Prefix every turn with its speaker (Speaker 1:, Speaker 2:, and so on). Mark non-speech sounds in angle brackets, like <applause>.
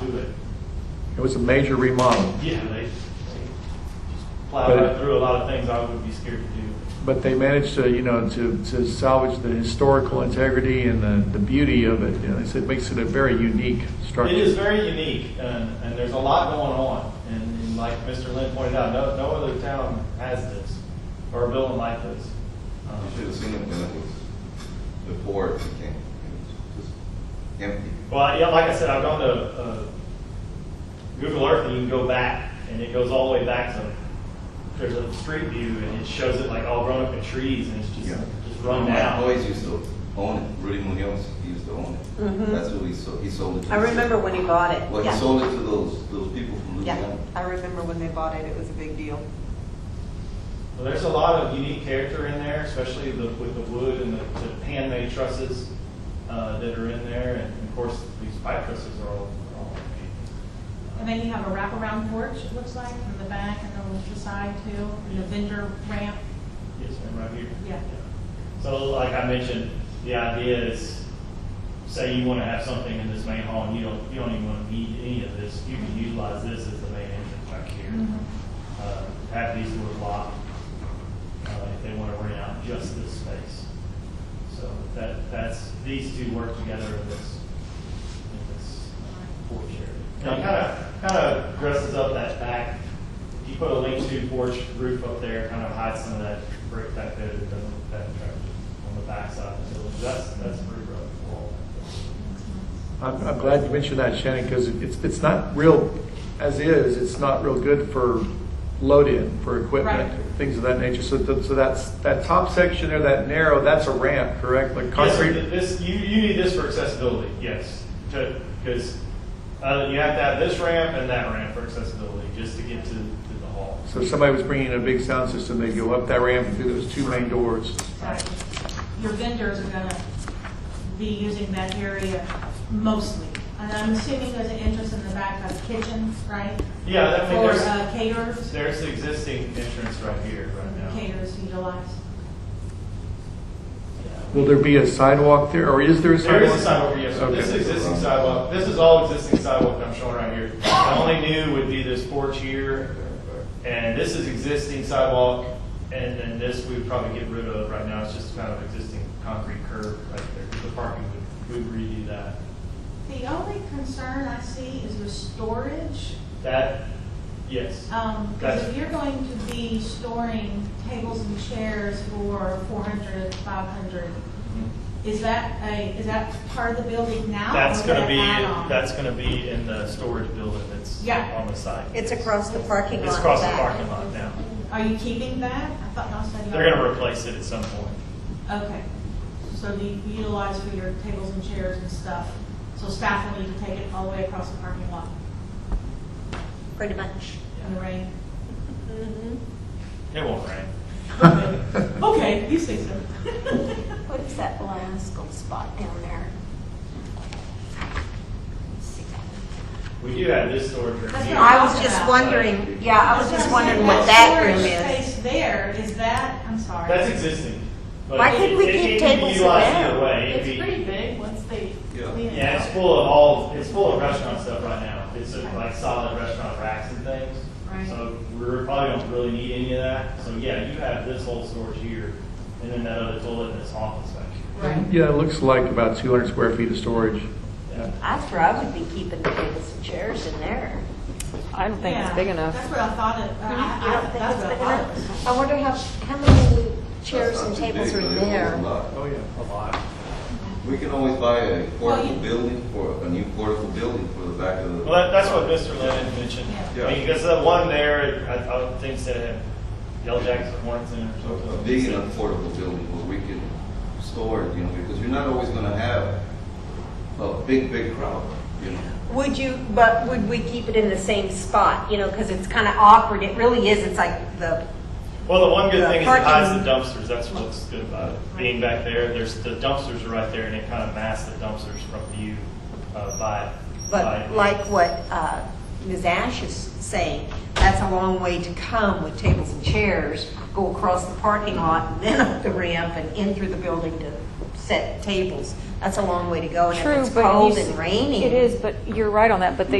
Speaker 1: to it.
Speaker 2: It was a major remodel,
Speaker 1: Yeah, they they plowed
Speaker 2: But-
Speaker 1: right through a lot of things I would be scared to do.
Speaker 2: but they managed to, you know, to, to salvage the historical integrity and the, the beauty of it. You know, it's- it makes it a very unique structure.
Speaker 1: It is very unique, and, and there's a lot going on, and, and like Mr. Lynn pointed out, no, no other town has this, or a building like this. Um,
Speaker 3: You should have seen it when it was before it became, it was just empty.
Speaker 1: Well, yeah, like I said, I've gone to uh, Google Earth and you can go back, and it goes all the way back to there's a street view, and it shows it like all grown up in trees, and it's just just run
Speaker 3: My
Speaker 1: down.
Speaker 3: boys used to own it, Rudy Munoz used to own it.
Speaker 4: Mhm.
Speaker 3: That's who he sold, he sold it to.
Speaker 4: I remember when he bought it.
Speaker 3: Well, he
Speaker 4: Yeah.
Speaker 3: sold it to those, those people from
Speaker 4: Yeah,
Speaker 3: Louisiana.
Speaker 4: I remember when they bought it, it was a big deal.
Speaker 1: Well, there's a lot of unique character in there, especially the, with the wood and the, the handmade trusses uh, that are in there, and of course these pipe trusses are all. Are all
Speaker 5: And then you have a wraparound porch, it looks like, from the back and then the side too, and the vendor ramp.
Speaker 1: Yes, ma'am, right here.
Speaker 5: Yeah.
Speaker 1: So like I mentioned, the idea is, say you want to have something in this main hall and you don't, you don't even want to need any of this, you can utilize this as the main entrance back here.
Speaker 5: Mhm.
Speaker 1: Uh, Have these doors locked, uh, if they want to rent out just this space. So that, that's, these two work together in this, in this uh, porch area. And it kind of, kind of dresses up that back, if you put a link to porch roof up there, kind of hides some of that brick back there that doesn't look that attractive on the backside of the building. That's, that's pretty rough wall.
Speaker 2: I'm, I'm glad you mentioned that, Shannon, because it's, it's not real, as is, it's not real good for load-in, for equipment,
Speaker 5: Right.
Speaker 2: things of that nature. So, th- so that's, that top section there, that narrow, that's a ramp, correct? Like
Speaker 1: Yes,
Speaker 2: concrete?
Speaker 1: th- this, you, you need this for accessibility, yes, because, uh, you have to have this ramp and that ramp for accessibility, just to get to, to the hall.
Speaker 2: So if somebody was bringing in a big sound system, they'd go up that ramp and through those two main doors.
Speaker 5: Exactly. Your vendors are gonna be using that area mostly. And I'm assuming there's an entrance in the back of kitchens, right?
Speaker 1: Yeah, I mean,
Speaker 5: Or
Speaker 1: there's-
Speaker 5: uh, caterers,
Speaker 1: There's the existing entrance right here, right now.
Speaker 5: caterers utilize.
Speaker 2: Will there be a sidewalk there, or is there a sidewalk?
Speaker 1: There is a sidewalk, yes,
Speaker 2: Okay.
Speaker 1: this existing sidewalk, this is all existing sidewalk I'm showing right here. The only new would be this porch here, and this is existing sidewalk, and then this we would probably get rid of right now, it's just kind of existing concrete curb right there, 'cause the parking would, would redo that.
Speaker 5: The only concern I see is with storage.
Speaker 1: That, yes,
Speaker 5: Um, because
Speaker 1: Gotcha.
Speaker 5: if you're going to be storing tables and chairs for 400, 500,
Speaker 1: mm-hmm.
Speaker 5: is that a, is that part of the building now? or
Speaker 1: that's
Speaker 5: is
Speaker 1: gonna
Speaker 5: that
Speaker 1: be,
Speaker 4: um,
Speaker 5: add-on?
Speaker 1: that's gonna be in the storage building that's
Speaker 5: Yeah.
Speaker 1: on the side.
Speaker 4: It's across the parking lot.
Speaker 1: It's across the
Speaker 4: back.
Speaker 1: parking lot now,
Speaker 5: Are you keeping that? I thought y'all said. y'all-
Speaker 1: they're gonna replace it at some point.
Speaker 5: Okay. So you utilize for your tables and chairs and stuff. So staff will need to take it all the way across the parking lot
Speaker 4: Pretty much.
Speaker 5: in the rain?
Speaker 1: It won't rain.
Speaker 2: <laughs>
Speaker 5: Okay, you say so.
Speaker 6: What is that Belasco spot down there?
Speaker 1: We do have this storage room
Speaker 5: That's
Speaker 1: here.
Speaker 5: not-
Speaker 4: I was just wondering,
Speaker 6: Yeah, I was just wondering what that room is.
Speaker 5: Storage space there, is that, I'm sorry.
Speaker 1: That's existing. but
Speaker 6: Why couldn't we
Speaker 1: it- it
Speaker 6: keep
Speaker 1: can be
Speaker 6: tables in
Speaker 1: utilized
Speaker 6: there?
Speaker 1: either way. It'd
Speaker 7: It's
Speaker 1: be-
Speaker 7: pretty big once they
Speaker 3: Yeah.
Speaker 7: clean it
Speaker 1: Yeah, it's
Speaker 7: out.
Speaker 1: full of all, it's full of restaurant stuff right now. It's sort of like solid restaurant racks and things.
Speaker 5: Right.
Speaker 1: So we're probably don't really need any of that. So yeah, you have this whole storage here and then that other toilet and this office back here.
Speaker 5: Right.
Speaker 2: Yeah, it looks like about 200 square feet of storage.
Speaker 1: Yeah.
Speaker 6: That's where I would be keeping the tables and chairs in there.
Speaker 8: I don't think it's
Speaker 5: Yeah,
Speaker 8: big enough.
Speaker 5: That's what I thought it, I,
Speaker 6: You
Speaker 5: I,
Speaker 6: don't think
Speaker 5: that's
Speaker 6: it's
Speaker 5: what I
Speaker 6: big
Speaker 5: thought it was.
Speaker 6: enough? I wonder how, how many chairs
Speaker 3: That's not
Speaker 6: and
Speaker 3: too
Speaker 6: tables
Speaker 3: big,
Speaker 6: are
Speaker 3: but it
Speaker 6: there?
Speaker 3: holds a lot.
Speaker 2: Oh, yeah, a lot.
Speaker 3: We can always buy a
Speaker 5: Well,
Speaker 3: portable
Speaker 5: you-
Speaker 3: building for, a new portable building for the back of the.
Speaker 1: Well, that, that's what Mr. Lennon mentioned.
Speaker 3: Yeah.
Speaker 1: I mean, because that one there, I, I would think said Yellow Jackets and Hornets in it or
Speaker 3: a-
Speaker 1: something.
Speaker 3: a big and affordable building where we can store it, you know, because you're not always gonna have a big, big crowd, you know.
Speaker 4: Would you, but would we keep it in the same spot, you know, because it's kind of awkward, it really is, it's like the,
Speaker 1: Well, the one good
Speaker 4: Yeah,
Speaker 1: thing is it hides the
Speaker 4: parking.
Speaker 1: dumpsters, that's what's good about it. Being back there, there's, the dumpsters are right there, and it kind of masks the dumpsters from view uh, by. by-
Speaker 4: but like what uh, Ms. Ash is saying, that's a long way to come with tables and chairs, go across the parking lot, <laughs> and then up the ramp and in through the building to set tables. That's a long way to go, and if
Speaker 8: True,
Speaker 4: it's
Speaker 8: but you
Speaker 4: cold
Speaker 8: s-
Speaker 4: and raining.
Speaker 8: It is, but you're right on that, but they